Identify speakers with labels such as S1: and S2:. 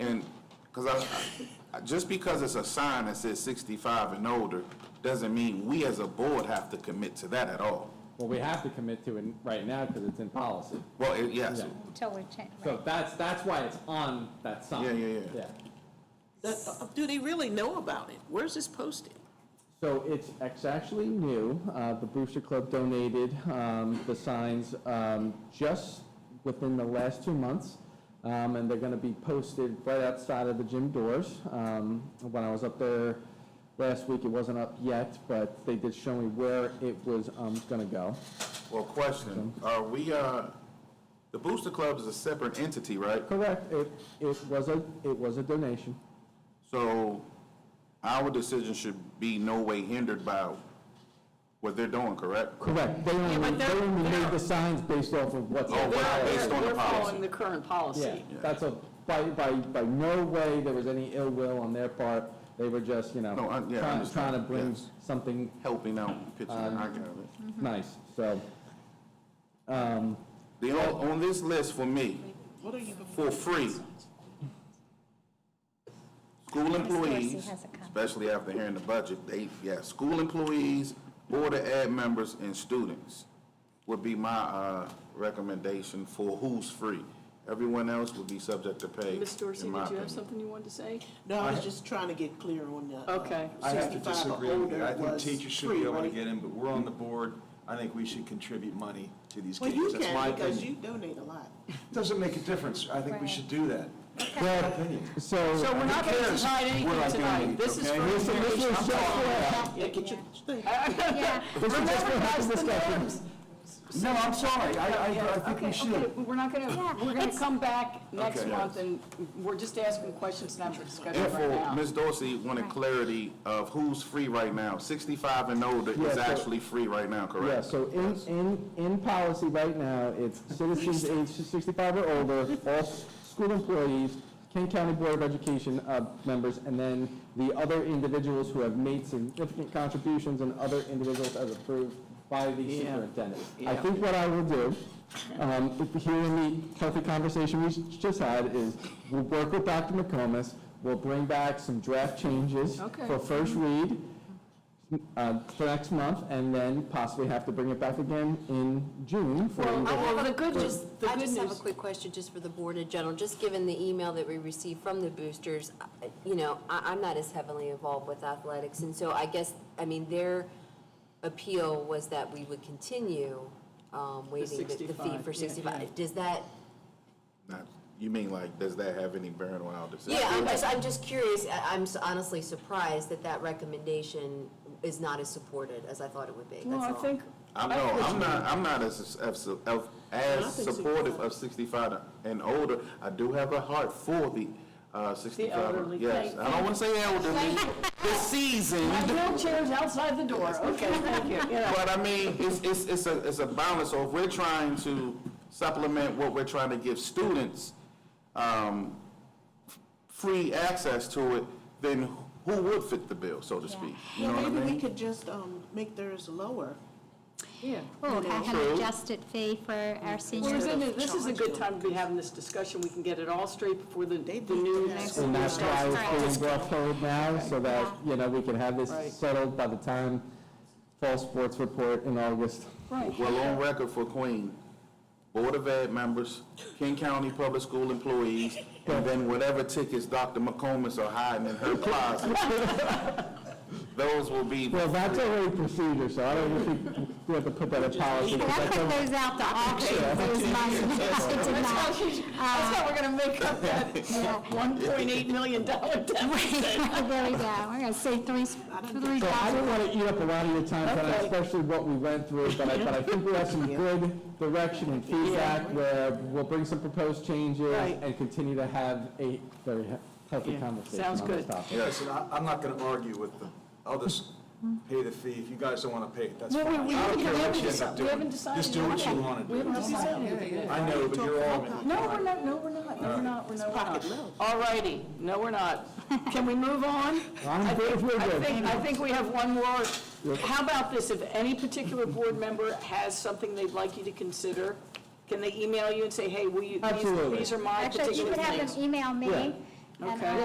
S1: Because I, I- just because it's a sign that says sixty-five and older, doesn't mean we as a board have to commit to that at all.
S2: Well, we have to commit to it right now because it's in policy.
S1: Well, it- yes,
S2: Yeah.
S3: Till we change,
S2: So that's, that's why it's on that sign.
S1: Yeah, yeah, yeah.
S4: That- uh, Do they really know about it? Where's this posted?
S2: So it's, it's actually new. Uh, The Booster Club donated um, the signs um, just within the last two months, Um, and they're going to be posted right outside of the gym doors. Um, When I was up there last week, it wasn't up yet, but they did show me where it was going to go.
S1: well, question, are we, uh, the Booster Club is a separate entity, right?
S2: Correct, it, it was a, it was a donation.
S1: So our decision should be no way hindered by what they're doing, correct?
S2: Correct, they
S4: but
S2: only, they
S4: they're-
S2: only made
S4: they're-
S2: the signs based off of what's.
S1: Oh,
S2: out
S1: wow.
S2: there.
S1: Based on the
S4: We're
S1: policy.
S4: following the current
S2: Yeah,
S4: policy.
S2: that's a, by, by, by no way there was any ill will on their part. They were just, you know,
S1: No, I- yeah, I
S2: trying, trying
S1: understand.
S2: to bring
S1: Yes.
S2: something
S1: Helping out, pitching, I got it.
S4: Mm-hmm.
S2: nice, so.
S1: The, on, on this list for me, for free, school employees,
S3: has a comment.
S1: especially after hearing the budget, they, yeah, school employees, board of ed members, and students would be my, uh, recommendation for who's free. Everyone else would be subject to pay,
S5: Ms. Dorsey, did
S1: in my
S5: you have
S1: opinion.
S5: something you wanted to say?
S6: No, I was just trying to get clear on the. uh,
S5: Okay.
S7: I have to
S6: 65 or
S7: disagree with you.
S6: older
S7: I think
S6: was
S7: teachers should
S6: free,
S7: be able to
S6: right?
S7: get in, but we're on the board. I think we should contribute money to these
S6: Well, you
S7: kids. That's my
S6: can, because you
S7: opinion.
S6: donate a lot.
S7: Doesn't make a difference. I think we should do that.
S4: So we're not going to decide
S7: What I
S4: anything tonight.
S7: think,
S4: This is
S7: okay?
S4: for
S7: Listen,
S2: this
S4: information.
S2: was just for-
S6: Yeah, get your thing.
S3: yeah.
S4: Remember, guys, the
S2: discussion.
S4: norms.
S7: No, I'm sorry. I, I, I think we
S4: Okay, okay,
S7: should.
S4: but we're not going
S3: Yeah,
S4: to, we're going to
S3: it's-
S4: come back next
S7: Okay.
S4: month, and we're just asking questions, not for discussion
S1: Therefore,
S4: right now.
S1: Ms. Dorsey wanted clarity of who's free right now. Sixty-five and older
S2: Yeah,
S1: is
S2: so-
S1: actually free right now, correct?
S2: Yeah, so in, in, in policy right now, it's citizens aged sixty-five or older, all s- school employees, Kent County Board of Education, uh, members, and then the other individuals who have made significant contributions and other individuals as approved by the superintendent. I think what I will do, um, if- here in the healthy conversation we s- just had, is we'll work with Dr. McComas, we'll bring back some draft changes
S4: Okay.
S2: for first read, uh, for next month, and then possibly have to bring it back again in June for.
S4: Well, the good news, the
S8: I
S4: good
S8: just have a
S4: news,
S8: quick question, just for the board in general, just given the email that we received from the boosters, I- you know, I, I'm not as heavily involved with athletics, and so I guess, I mean, their appeal was that we would continue um, waiving the- the fee
S4: 65, yeah,
S8: for 65. Does that,
S1: Not- You mean like, does that have any bearing on our decision?
S8: yeah, I'm just, I'm just curious, I- I'm s- honestly surprised that that recommendation is not as supported as I thought it would be, that's
S4: well, I
S8: all.
S4: think,
S1: I'm no, I'm not, I'm not as, as, of- as
S6: think
S1: supportive of sixty-five and older. I do have a heart for the, uh, sixty-five,
S4: elderly.
S1: yes. I don't wanna say elderly, the season,
S4: my wheelchair's outside the door, okay, thank you. You know,
S1: but I mean, it's, it's, it's a, it's a balance. So if we're trying to supplement what we're trying to give students, um, f- free access to it, then who would fit the bill, so to speak? You know what I
S6: Well, maybe
S1: mean?
S6: we could just um, make theirs lower.
S4: Yeah.
S3: We'll have an
S1: True.
S3: adjusted fee for our
S4: Well,
S3: seniors.
S4: isn't it- this is a good time to be having this discussion, we can get it all straight before the, the new school
S2: And
S4: year
S2: that's why
S4: starts.
S2: it's being brought forward now, so that, you know, we can have this
S4: Right.
S2: settled by the time fall sports report in August.
S4: Right.
S1: Well, on record for Queen, Board of Ed members, King County Public School employees, and then whatever tickets Dr. McComas are hiding in her closet, those will be,
S2: Well,
S1: the-
S2: that's already procedure, so I don't think we have to put that in policy. 'cause
S3: That
S2: that's
S3: put
S2: a-
S3: those out to auction, those money, it did not. Uh,
S4: That's how we're gonna make up that one point eight million dollar deficit.
S3: There we go, we're gonna save three, three
S2: So I don't
S3: thousand.
S2: want to eat up a lot of your time tonight,
S4: Okay.
S2: especially what we went through, but I, but I think we have some good direction and feedback where we'll bring some proposed changes
S4: Right.
S2: and continue to have a very he- healthy
S4: Yeah,
S2: conversation on
S4: sounds
S2: this topic.
S4: good.
S7: Listen, I, I'm not gonna argue with them. I'll just pay the fee. If you guys don't wanna pay it, that's
S4: Well, we-
S7: fine.
S4: we
S7: I don't
S4: haven't-
S7: care
S4: we
S7: what
S4: haven't
S7: you end
S4: deci-
S7: up
S4: we haven't
S7: doing. Just do
S4: decided
S7: what
S4: yet.
S7: you wanna
S4: We haven't
S7: do.
S4: decided anything yet.
S7: I know, but you're all.
S4: No, we're not, no, we're not, no, we're not, we're not,
S6: Pocket
S4: we're
S6: low.
S4: not. All righty, no, we're not. Can we move on?
S2: I'm good if we're
S4: I
S2: good.
S4: think, I think we have one more. How about this, if any particular board member has something they'd like you to consider, can they email you and say, hey, will you, these-
S2: Absolutely.
S4: these are my
S3: Actually, you
S4: particular
S3: could have
S4: things?
S3: them email me, and
S4: Okay.